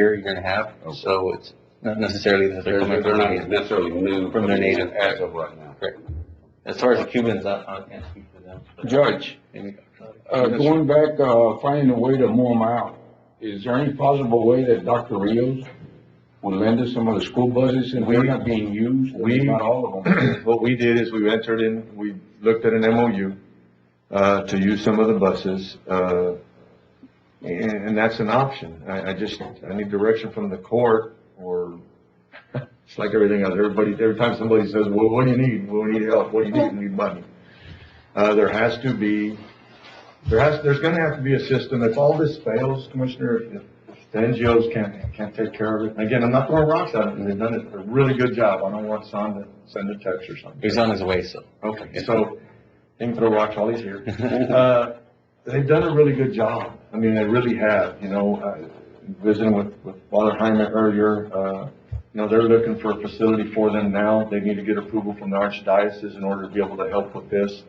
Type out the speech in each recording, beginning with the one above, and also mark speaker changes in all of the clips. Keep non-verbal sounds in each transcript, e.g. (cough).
Speaker 1: year, year and a half, so it's not necessarily that they're coming
Speaker 2: They're, they're
Speaker 1: from
Speaker 2: not
Speaker 1: Haiti.
Speaker 2: necessarily new.
Speaker 1: From their native-
Speaker 2: As of right now.
Speaker 1: As far as the Cubans, I, I can't speak for them. but-
Speaker 3: Judge,
Speaker 1: Any-
Speaker 3: uh, going back, uh, finding a way to move them out, is there any possible way that Dr. Rios would lend us some of the school buses and they're not being used, or
Speaker 4: We-
Speaker 3: not all of them?
Speaker 4: (clears throat) What we did is we entered in, we looked at an MOU, uh, to use some of the buses, uh, and, and that's an option. I, I just, I need direction from the court or, it's like everything else, everybody, every time somebody says, well, what do you need? Well, we need help, what do you need? We need money. Uh, there has to be, there has, there's gonna have to be a system. If all this fails, Commissioner, if the NGOs can't, can't take care of it. And Again, I'm not throwing rocks at them, they've done a really good job. I don't want Son to send a text or something.
Speaker 1: He's on his way, so. (laughs)
Speaker 4: Okay, so, they can throw rocks while he's here. Uh, They've done a really good job. I mean, they really have, you know, uh, visiting with, with Father Hyman earlier, uh, you know, they're looking for a facility for them now. They need to get approval from the archdiocese in order to be able to help with this.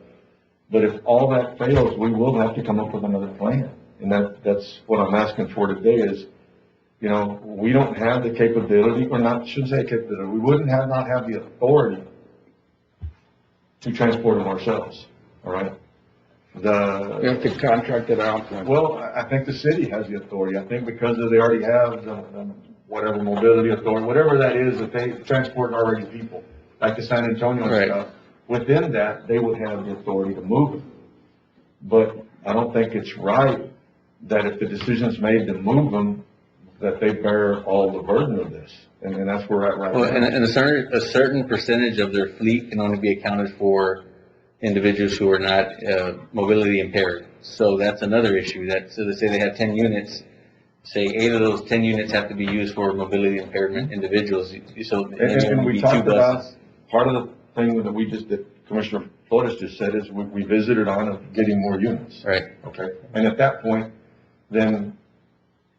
Speaker 4: But if all that fails, we will have to come up with another plan. And that, that's what I'm asking for today is, you know, we don't have the capability, or not, shouldn't say capability, we wouldn't have, not have the authority to transport them ourselves, all right?
Speaker 3: You
Speaker 4: The,
Speaker 3: have to contract it out. like-
Speaker 4: well, I, I think the city has the authority, I think because they already have the, the whatever mobility authority, whatever that is, that they transport already people, like the San Antonio and
Speaker 1: Right.
Speaker 4: stuff. Within that, they would have the authority to move them. But I don't think it's right that if the decision's made to move them, that they bear all the burden of this, and, and that's where we're at right now.
Speaker 1: Well, and, and a certain, a certain percentage of their fleet can only be accounted for individuals who are not, uh, mobility impaired. So that's another issue, that, so they say they have ten units, say eight of those ten units have to be used for mobility impairment individuals, so.
Speaker 4: And, and- and
Speaker 1: it'd be
Speaker 4: we
Speaker 1: two
Speaker 4: talked about,
Speaker 1: buses.
Speaker 4: part of the thing that we just, that Commissioner Flores just said is we, we visited on of getting more units.
Speaker 1: Right,
Speaker 4: Okay, and at that point, then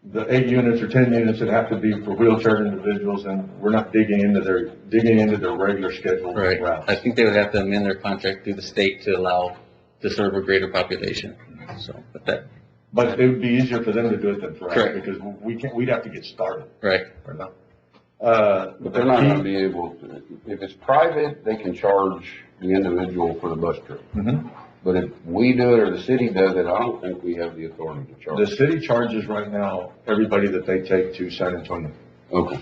Speaker 4: the eight units or ten units would have to be for wheelchair individuals and we're not digging into their, digging into their regular scheduled
Speaker 1: right. I
Speaker 4: routes.
Speaker 1: think they would have to amend their contract through the state to allow to serve a greater population, so, but that,
Speaker 4: But it would be easier for them to do it than for us
Speaker 1: Correct.
Speaker 4: because we can't, we'd have to get started
Speaker 1: right,
Speaker 4: or not. Uh,
Speaker 2: But they're not gonna be able to, if it's private, they can charge the individual for the bus trip.
Speaker 3: Mm-hmm.
Speaker 4: Mhm.
Speaker 2: But if we do it or the city does it, I don't think we have the authority to
Speaker 4: The
Speaker 2: charge.
Speaker 4: city charges right now everybody that they take to San Antonio.
Speaker 2: Okay.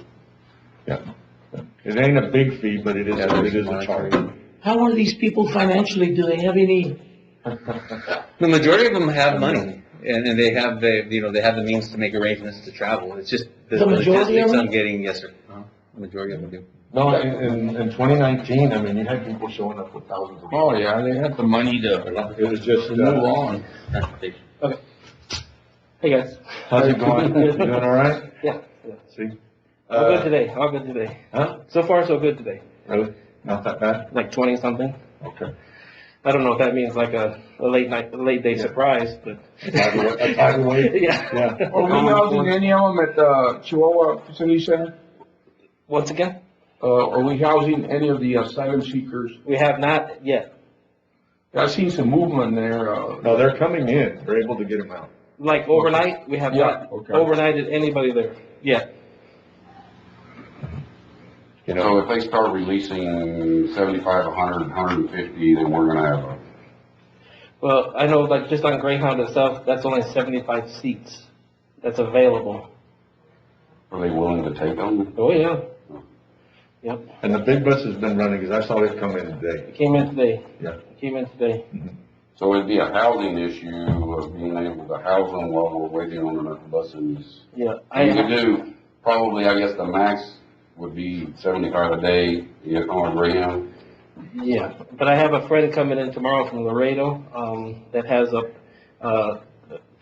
Speaker 4: It ain't a big fee, but it is,
Speaker 1: Yeah,
Speaker 4: it is a charge.
Speaker 5: How are these people financially? Do they have any?
Speaker 1: The majority of them have money, and, and they have the, you know, they have the means to make arrangements to travel, it's just the
Speaker 5: The majority of
Speaker 1: logistics I'm
Speaker 5: them?
Speaker 1: getting, yes, sir. Uh-huh. The Majority of them do.
Speaker 4: No, in, in, in twenty nineteen, I mean, you had people showing up with thousands of.
Speaker 3: Oh, yeah, they have the money to
Speaker 4: It was just,
Speaker 3: to move
Speaker 4: uh,
Speaker 3: on.
Speaker 1: Transportation.
Speaker 5: Hey, guys.
Speaker 4: how's it (laughs) going? You doing all right?
Speaker 5: Yeah, yeah.
Speaker 4: See?
Speaker 5: All good
Speaker 4: Uh,
Speaker 5: today. All good today.
Speaker 4: huh?
Speaker 5: So far, so good today.
Speaker 4: Really? Not that bad?
Speaker 5: Like twenty something.
Speaker 4: Okay.
Speaker 5: I don't know if that means like a, a late night, a late day
Speaker 4: Yeah.
Speaker 5: surprise, but.
Speaker 4: tidal wa- a tidal wave?
Speaker 5: Yeah.
Speaker 4: (laughs) Yeah.
Speaker 3: Are we housing any of them at the Chihuahua Facility Center?
Speaker 5: Once again,
Speaker 3: Uh, are we housing any of the asylum seekers?
Speaker 5: we have not yet.
Speaker 3: I've seen some movement there, uh,
Speaker 4: No, they're coming in. They're able to get them out.
Speaker 5: Like overnight, we have
Speaker 3: Yeah,
Speaker 5: not
Speaker 3: okay.
Speaker 5: overnighted anybody there. Yeah.
Speaker 2: So
Speaker 4: You know,
Speaker 2: if they start releasing seventy-five, a hundred, hundred and fifty, then we're gonna have a
Speaker 5: Well, I know like just on Greyhound itself, that's only seventy-five seats that's available.
Speaker 2: Are they willing to take them?
Speaker 5: Oh, yeah. Yep.
Speaker 4: and the big bus has been running, because I saw it come in today.
Speaker 5: It came in today.
Speaker 4: Yeah.
Speaker 5: It Came in today.
Speaker 2: So it'd be a housing issue of being able to house them while we're waiting on the buses.
Speaker 5: Yeah. I-
Speaker 2: You could do, probably, I guess the max would be seventy-five a day, you know, on Greyhound.
Speaker 5: Yeah, but I have a friend coming in tomorrow from Laredo, um, that has a, uh,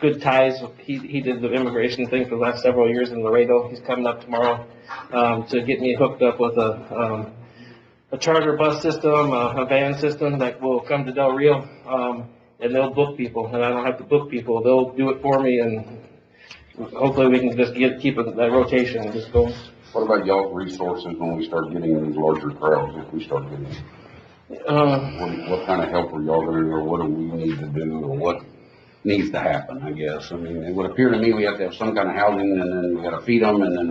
Speaker 5: good ties. He, he did the immigration thing for the last several years in Laredo. He's coming up tomorrow, um, to get me hooked up with a, um, a charter bus system, a, a van system that will come to Del Rio, um, and they'll book people, and I don't have to book people. They'll do it for me and hopefully we can just get, keep it- that rotation and just go.
Speaker 2: What about y'all's resources when we start getting these larger crowds, if we start getting,
Speaker 5: Uh,
Speaker 2: what, what kind of help are y'all gonna, do, or what do we need to do, or what? needs to happen, I guess. I mean, it would appear to me we have to have some kind of housing, and then we gotta feed them, and then